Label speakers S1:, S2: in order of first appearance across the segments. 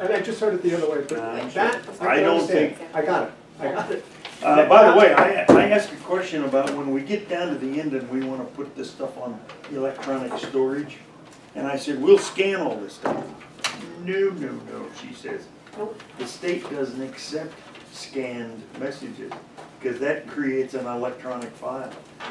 S1: and I just heard it the other way, but that, I
S2: Uh, I
S1: can
S2: don't
S1: understand. I got it, I got it.
S2: Uh, by the way, I, I asked a question about when we get down to the end and we wanna put this stuff on electronic storage. And I said, we'll scan all this stuff. No, no, no, she says. The state doesn't accept scanned messages, cause that creates an electronic file,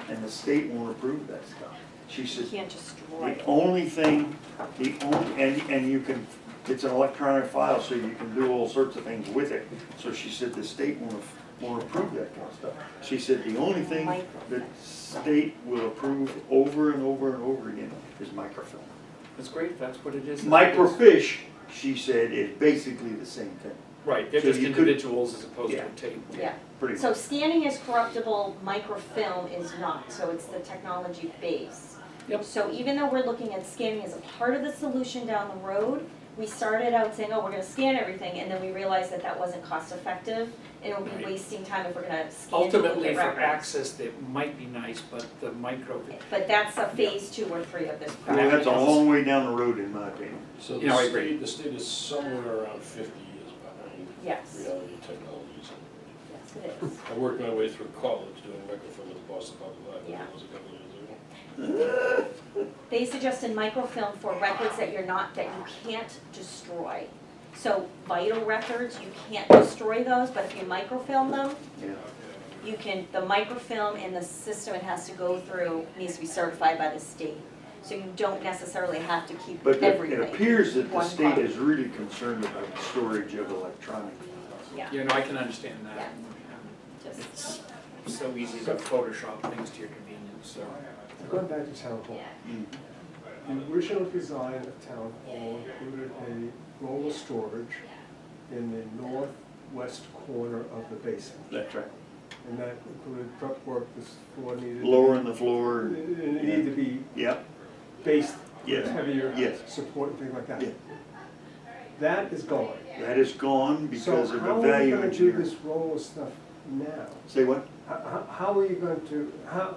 S2: and the state won't approve that stuff. She
S3: You
S2: says,
S3: can't destroy
S2: the
S3: it.
S2: only thing, the only, and, and you can, it's an electronic file, so you can do all sorts of things with it. So she said the state won't, won't approve that kind of stuff. She said the only thing that state will approve over and over and over again is microfilm.
S4: That's great, that's what it is.
S2: Microfiche, she said, is basically the same thing,
S4: Right, they're
S2: So
S4: just
S2: you could-
S4: individuals as opposed to
S2: Yeah.
S4: a tape.
S3: Yeah,
S2: pretty
S3: so
S2: much.
S3: scanning is corruptible, microfilm is not, so it's the technology base.
S4: Yep.
S3: So even though we're looking at scanning as a part of the solution down the road, we started out saying, oh, we're gonna scan everything, and then we realized that that wasn't cost effective, and it would be
S4: Right.
S3: wasting time if we're gonna scan to look
S4: Ultimately,
S3: at
S4: for
S3: records.
S4: access, that might be nice, but the micro,
S3: But that's a phase two or three of this
S2: Well,
S3: project.
S2: that's a long way down the road in my opinion.
S5: So
S4: You know, I
S5: the
S4: agree.
S5: state, the state is somewhere around fifty years behind
S3: Yes,
S5: reality technologies.
S3: yes, it is.
S5: I worked my way through college doing microfilm at the Boston Public Library,
S3: Yeah.
S5: that was a couple of years ago.
S3: They suggested microfilm for records that you're not, that you can't destroy. So vital records, you can't destroy those, but if you microfilm them,
S2: Yeah.
S3: you can, the microfilm in the system it has to go through needs to be certified by the state. So you don't necessarily have to keep
S2: But it-
S3: everything.
S2: it appears that the
S3: One
S2: state
S3: copy.
S2: is really concerned about storage of electronic
S3: Yeah,
S4: you know, I can understand that.
S3: Yeah. just,
S4: It's so easy to Photoshop things to your convenience, so.
S1: Going back to town hall,
S2: Mm.
S1: the original design of town hall included a roller storage in the northwest corner of the basement.
S2: That's right.
S1: And that included prep work this floor needed.
S2: Lowering the floor,
S1: It it needed to be
S2: yep,
S1: based, with
S2: Yes,
S1: heavier
S2: yes.
S1: support and things like that.
S2: Yeah.
S1: That is gone.
S2: that is gone because
S1: So
S2: of
S1: how
S2: the
S1: are we
S2: value
S1: gonna do
S2: engineering.
S1: this roll of stuff now?
S2: Say what?
S1: How- How, how are you going to, how?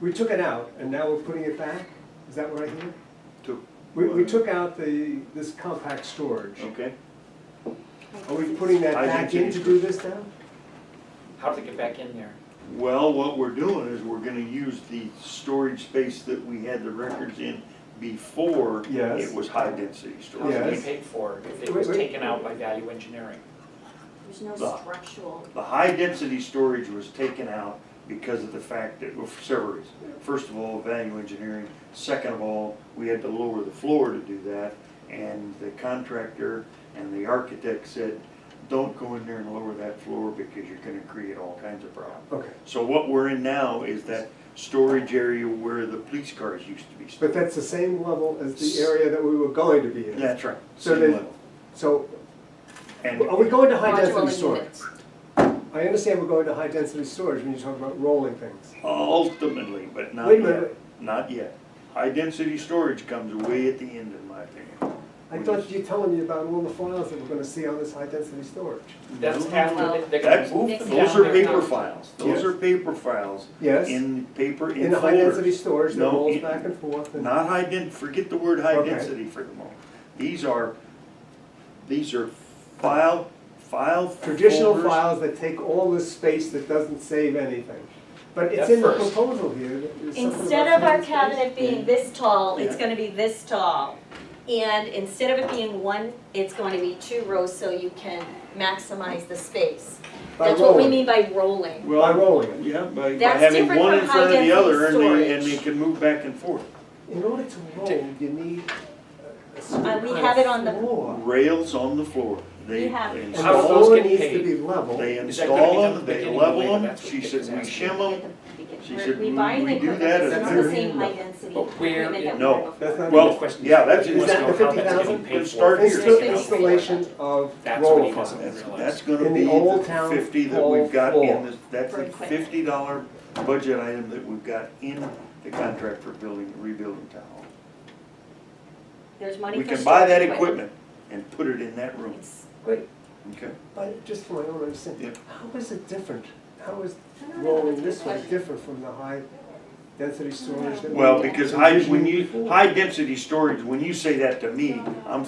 S1: We took it out and now we're putting it back? Is that what I hear?
S2: Took-
S1: We, we took out the, this compact storage.
S2: Okay,
S1: Are we putting that
S2: I
S1: back
S2: think
S1: in
S2: it
S1: to
S2: is.
S1: do this now?
S4: How did they get back in there?
S2: well, what we're doing is we're gonna use the storage space that we had the records in before
S1: Yes.
S2: it was high density
S4: How
S2: storage.
S4: did
S1: Yes.
S4: they pay for it if it was
S1: Wait, wait.
S4: taken out by value engineering?
S3: there's no
S2: Well.
S3: structural,
S2: The high density storage was taken out because of the fact that, well, for several reasons. First of all, value engineering. Second of all, we had to lower the floor to do that. And the contractor and the architect said, don't go in there and lower that floor because you're gonna create all kinds of problems.
S1: Okay,
S2: So what we're in now is that storage area where the police cars used to be
S1: but
S2: stored.
S1: that's the same level as the area that we were going to be in.
S2: That's right,
S1: So
S2: same
S1: they-
S2: level.
S1: So
S2: And
S1: are we going to high density
S3: modular
S1: storage?
S3: units.
S1: I understand we're going to high density storage when you talk about rolling things.
S2: ultimately, but not
S1: Wait a minute.
S2: yet, not yet. High density storage comes way at the end, in my opinion.
S1: I thought you were telling me about all the files that we're gonna see on this high density storage.
S4: That's
S2: No.
S4: after, they- they're
S2: That's-
S4: gonna move them down.
S2: Those are
S4: there
S2: paper
S4: now.
S2: files, those
S1: Yes.
S2: are paper files
S1: Yes,
S2: in paper,
S1: in
S2: in
S1: the high density
S2: folders.
S1: storage that
S2: No,
S1: rolls
S2: in-
S1: back and forth and,
S2: Not high den, forget the word high
S1: Okay.
S2: density for the moment. These are, these are file, file
S1: traditional
S2: folders.
S1: files that take all this space that doesn't save anything. But it's
S4: That's
S1: in the
S4: first.
S1: proposal here. that there's something
S3: Instead
S1: about
S3: of our
S1: high density space.
S3: cabinet being this tall, it's
S2: Yeah.
S3: gonna be this tall. And instead of it being one, it's going to be two rows so you can maximize the space.
S1: By
S3: That's what we
S1: rolling.
S3: mean by rolling.
S1: By rolling it.
S2: Yeah, by, by
S3: That's
S2: having
S3: different
S2: one
S3: from
S2: in front of the
S3: high-density
S2: other and they, and
S3: storage.
S2: they can move back and forth.
S1: In order to roll, you need a- a certain
S3: Uh, we
S1: kind
S3: have
S1: of
S3: it on the-
S1: floor.
S2: Rails on the floor. They
S3: We have-
S2: install-
S1: And
S4: How
S1: the
S4: are those
S1: floor
S4: getting
S1: needs to
S4: paid?
S1: be level.
S2: They
S4: Oh, Is that gonna be
S2: install
S4: done at
S2: them,
S4: the
S2: they
S4: beginning
S2: level
S4: later?
S2: them,
S4: That's what
S2: she
S4: Dick
S2: said
S4: is
S2: we
S4: asking.
S2: shim
S3: At the
S2: them.
S3: beginning.
S2: She
S3: We're-
S2: said,
S3: We
S2: "We-
S3: buy
S2: we
S3: the
S2: do
S3: equipment,
S2: that
S3: it's
S2: at
S3: not the
S2: very
S3: same high
S2: level."
S3: density
S4: But where
S3: equipment that
S4: in-
S3: we
S2: No,
S3: had
S1: that's
S3: before.
S1: not-
S2: Well,
S4: The question
S2: yeah, that's-
S4: He wants
S1: Is that
S4: to know
S1: the
S4: how that's
S1: 50,000?
S4: getting paid for.
S2: Start
S4: if
S2: here.
S4: it's
S1: Insta-
S4: taken out.
S1: Installation of
S4: That's what
S1: roll
S4: he doesn't
S1: files.
S4: realize.
S2: That's gonna
S1: In the
S2: be
S1: old
S2: the
S1: town oh,
S2: fifty that
S1: hall
S2: we've got
S1: floor.
S2: in this, that's
S3: For
S2: the
S3: equipment.
S2: fifty dollar budget item that we've got in the contract for building, rebuilding town hall.
S3: There's money
S2: We
S3: for
S2: can buy that
S3: storage
S2: equipment and put it in that room,
S3: It's-
S1: Wait,
S2: okay?
S1: but just for my own understanding,
S2: Yep.
S1: how is it different? How is
S3: No, no, no,
S1: rolling
S3: that's
S1: this
S3: a
S1: way
S3: question.
S1: different from the high density storage that we?
S2: Well, because high, when
S1: envisioned
S2: you,
S1: before?
S2: high density storage, when you say that to me, I'm